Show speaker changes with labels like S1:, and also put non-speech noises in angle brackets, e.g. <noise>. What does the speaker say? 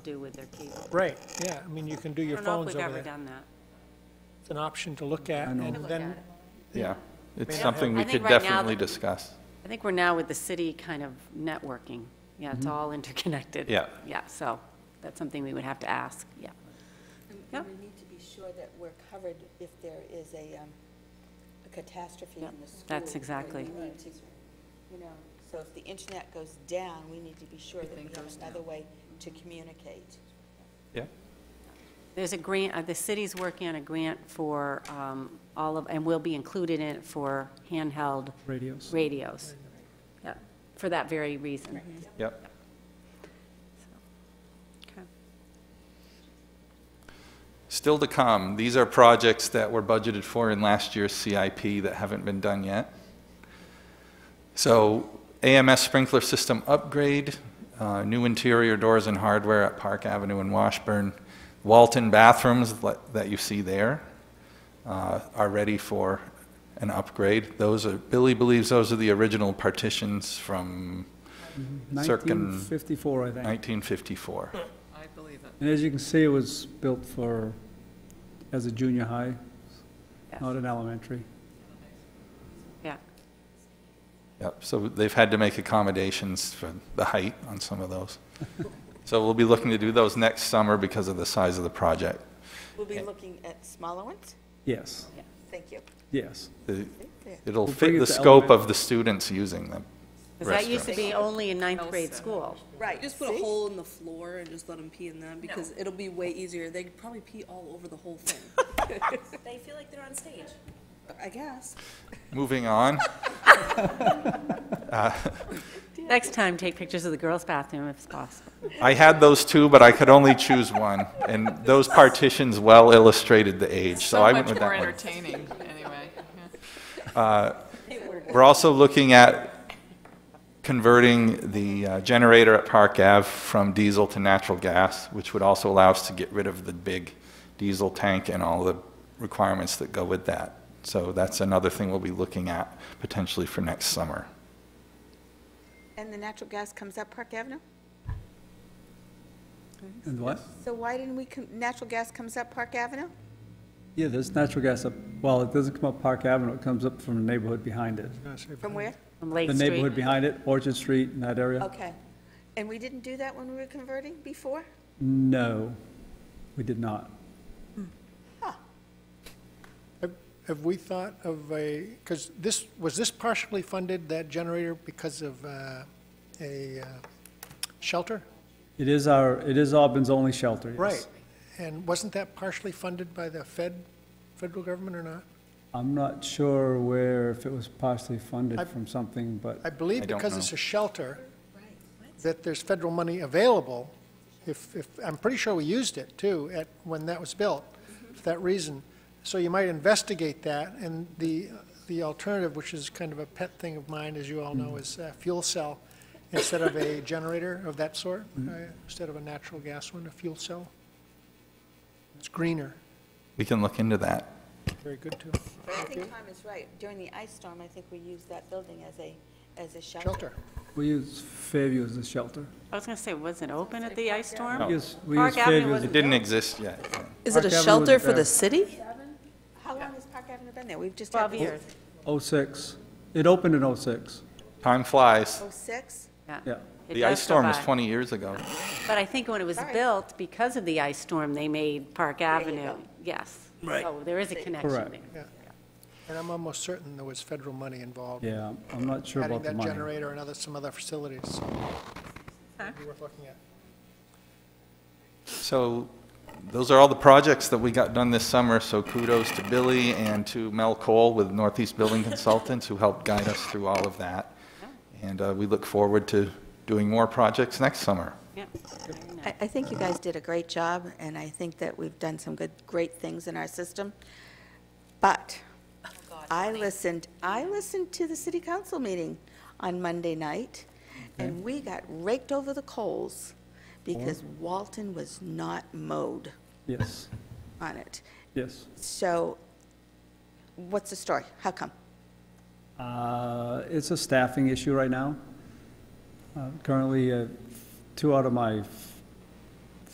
S1: do with their cable.
S2: Right, yeah, I mean, you can do
S1: I
S2: your
S1: don't know if we've
S2: phones over
S1: ever
S2: there.
S1: done that.
S2: It's an option to look at,
S3: I know.
S2: and
S3: Look
S2: then,
S4: Yeah, it's
S2: Yeah.
S4: something we
S1: I think
S4: could
S1: right now
S4: definitely
S1: the-
S4: discuss.
S1: I think we're now with the city kind of networking. Yeah,
S2: Mm-hmm.
S1: it's all interconnected.
S4: Yeah.
S1: Yeah, so that's something we would have to ask, yeah.
S5: And-
S1: Yeah.
S5: And we need to be sure that we're covered if there is a, um, a catastrophe
S1: Yep,
S5: in the school.
S1: that's
S5: where
S1: exactly-
S5: we need to, You know, so if the internet goes down, we need to be sure that we have another way to communicate.
S4: Yeah,
S1: There's a grant, uh, the city's working on a grant for um, all of, and will be included in it for handheld
S3: Radios.
S1: radios. Yeah, for that very reason.
S4: yep.
S1: Okay.
S4: Still to come, these are projects that were budgeted for in last year's CIP that haven't been done yet. So AMS sprinkler system upgrade, uh, new interior doors and hardware at Park Avenue in Washburn. Walton bathrooms li- that you see there uh, are ready for an upgrade. Those are, Billy believes those are the original partitions from circa
S3: 1954, I think.
S6: Hmm.
S4: 1954.
S6: I believe it.
S3: And as you can see, it was built for, as a junior high,
S1: Yes.
S3: not an elementary.
S1: Yeah,
S4: Yep, so they've had to make accommodations for the height on some of
S6: <laughs>
S4: those. So we'll be looking to do those next summer because of the size of the project.
S5: We'll be
S4: Okay.
S5: looking at smaller ones?
S3: Yes,
S5: Thank you.
S3: yes.
S4: The-
S5: There.
S4: It'll
S3: We'll bring
S4: fit
S3: it
S4: the
S3: to
S4: scope
S3: element-
S4: of the students using them.
S1: because that used to be only in ninth grade
S6: Elsa.
S1: school.
S5: Right.
S7: Just put a
S5: see?
S7: hole in the floor and just let them pee in them because it'll be way easier. They could probably pee all over the whole thing.
S8: They feel like they're on stage.
S7: I guess.
S4: Moving on,
S1: Next time, take pictures of the girls' bathroom if it's possible.
S4: I had those two, but I could only choose one, and those partitions well illustrated the age, so I went with that
S6: So much more
S4: one.
S6: entertaining, anyway. Yeah.
S4: We're also looking at converting the uh, generator at Park Ave from diesel to natural gas, which would also allow us to get rid of the big diesel tank and all the requirements that go with that. So that's another thing we'll be looking at potentially for next summer.
S5: And the natural gas comes up Park Avenue?
S3: And what?
S5: So why didn't we, com- natural gas comes up Park Avenue?
S3: Yeah, there's natural gas up, well, it doesn't come up Park Avenue, it comes up from the neighborhood behind it.
S5: From where?
S1: From Lake
S3: The
S1: Street.
S3: neighborhood behind it, Orchard Street and that area?
S5: Okay. And we didn't do that when we were converting before?
S3: No, we did not.
S2: have- have we thought of a, because this, was this partially funded, that generator, because of uh, a uh, shelter?
S3: It is our, it is Auburn's only shelter, yes.
S2: Right, and wasn't that partially funded by the Fed, federal government or not?
S3: I'm not sure where, if it was partially
S2: I-
S3: funded from something, but
S2: I believe
S4: I don't
S2: because it's
S4: know.
S2: a shelter, that there's federal money available, if, if, I'm pretty sure we used it too, at, when that was built, for that reason. So you might investigate that, and the, the alternative, which is kind of a pet thing of mine, as you all
S4: Mm.
S2: know, is uh, fuel cell instead of
S4: <laughs>
S2: a generator of that sort,
S4: Mm-hmm.
S2: uh, instead of a natural gas one, a fuel cell. It's greener,
S4: We can look into that.
S2: very good too.
S5: I think Tom is right. During the ice storm, I think we used that building as a, as a shelter.
S2: Shelter.
S3: we use Fairview as a shelter.
S1: I was going to say, was it open at the ice storm?
S3: We use we
S1: Park
S3: use
S1: Avenue
S3: Fairview as a
S4: It didn't exist yet.
S7: Is
S3: Park
S7: it
S3: Avenue
S7: a
S3: was
S7: shelter for
S3: there.
S7: the city?
S5: How long has Park Avenue been there? We've just had.
S1: Twelve
S5: the-
S1: years.
S3: 06. It opened in 06,
S4: Time flies.
S5: Oh, six?
S3: yeah.
S1: It
S4: The ice
S1: does go
S4: storm was
S1: by.
S4: 20 years ago.
S1: But I think when it was
S5: All right.
S1: built, because of the ice storm, they made Park Avenue,
S5: go.
S1: yes. Right. So there is a connection there.
S3: Correct.
S2: And I'm almost certain there was federal money involved.
S3: Yeah, I'm not sure
S2: adding
S3: about the
S2: that
S3: money.
S2: generator and other, some other facilities. so it'd Be worth looking at.
S4: So those are all the projects that we got done this summer, so kudos to Billy and to Mel Cole with Northeast Building Consultants who helped guide us through all of that. And uh, we look forward to doing more projects next summer.
S1: Yeah.
S5: I, I think you guys did a great job, and I think that we've done some good, great things in our system. But I listened, I listened to the city council meeting on Monday night, and we got raked over the coals because Walton was not mowed
S3: Yes,
S5: on it.
S3: yes.
S5: So what's the story? How come?
S3: Uh, It's a staffing issue right now. Uh, Currently, uh, two out of my